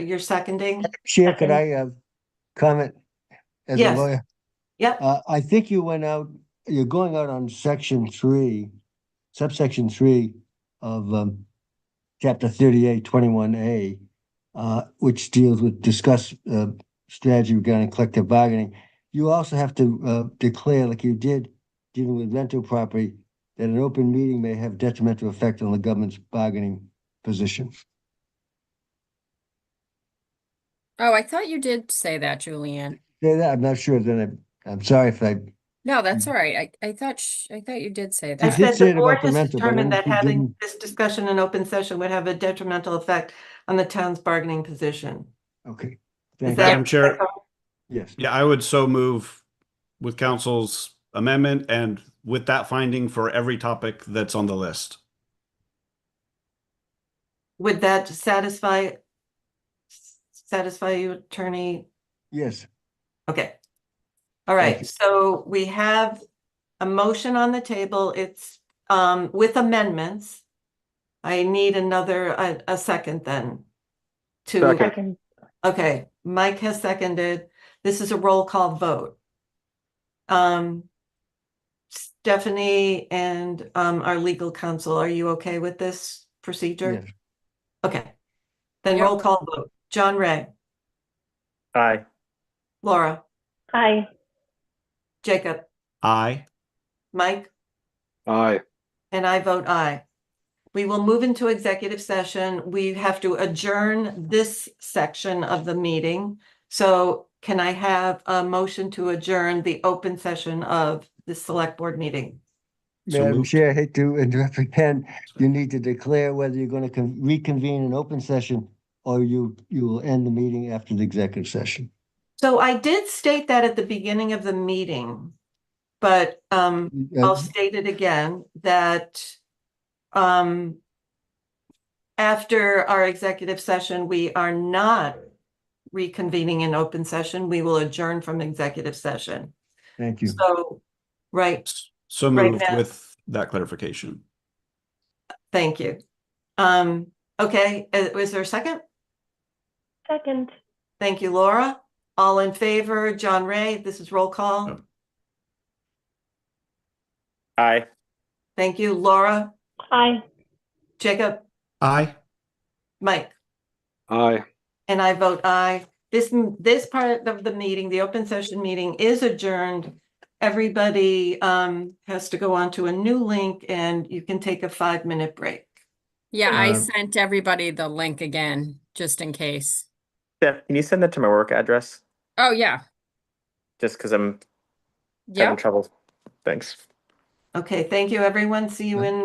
You're seconding? Chair, could Second. I uh, comment as a Yes. lawyer? Yep, Uh, I think you went out, you're going out on section three, subsection three of um, chapter thirty-eight, twenty-one A, uh, which deals with discuss uh, strategy regarding collective bargaining. You also have to uh, declare, like you did dealing with rental property, that an open meeting may have detrimental effect on the government's bargaining position. Oh, I thought you did say that, Julianne. Say that, I'm not sure, then I, I'm sorry if I No, that's all right. I, I thought, sh- I thought you did say I did that. said say it the about board has Memento, but I determined don't that think you having didn't. this discussion in open session would have a detrimental effect on the town's bargaining position. Is Okay. Thank that- you. Madam Chair, Yes, yeah, I would so move with council's amendment and with that finding for every topic that's on the list. Would that satisfy satisfy you, attorney? yes. Okay. All Thank right, you. so we have a motion on the table. It's um with amendments. I need another, a, a second then. To, Second, okay, Mike has seconded. This is a roll call vote. Um. Stephanie and um our legal counsel, are you okay with this procedure? yes. Okay. Then Yep. roll call vote. John Ray, aye. Laura, Aye. Jacob, Aye. Mike? Aye. And I vote aye. We will move into executive session. We have to adjourn this section of the meeting. So can I have a motion to adjourn the open session of the select board meeting? So Madam moved. Chair, I hate to interrupt again. You need to declare whether you're going to reconvene an open session or you, you will end the meeting after the executive session. So I did state that at the beginning of the meeting, but um, Uh, I'll state it again that um after our executive session, we are not reconvening in open session. We will adjourn from executive session. Thank you. So, right, So Right moved now. with that clarification. thank you. Um, okay, uh, was there a second? Second. Thank you, Laura. All in favor, John Ray, this is roll call. Oh. Aye. Thank you, Laura, Aye. Jacob, Aye. Mike. Aye. And I vote aye. This, m- this part of the meeting, the open session meeting is adjourned. Everybody um has to go on to a new link and you can take a five-minute break. Yeah, I Uh, sent everybody the link again, just in case. Steph, can you send that to my work address? Oh, yeah. Just because I'm Yep. having trouble. Thanks. Okay, thank you, everyone. See you in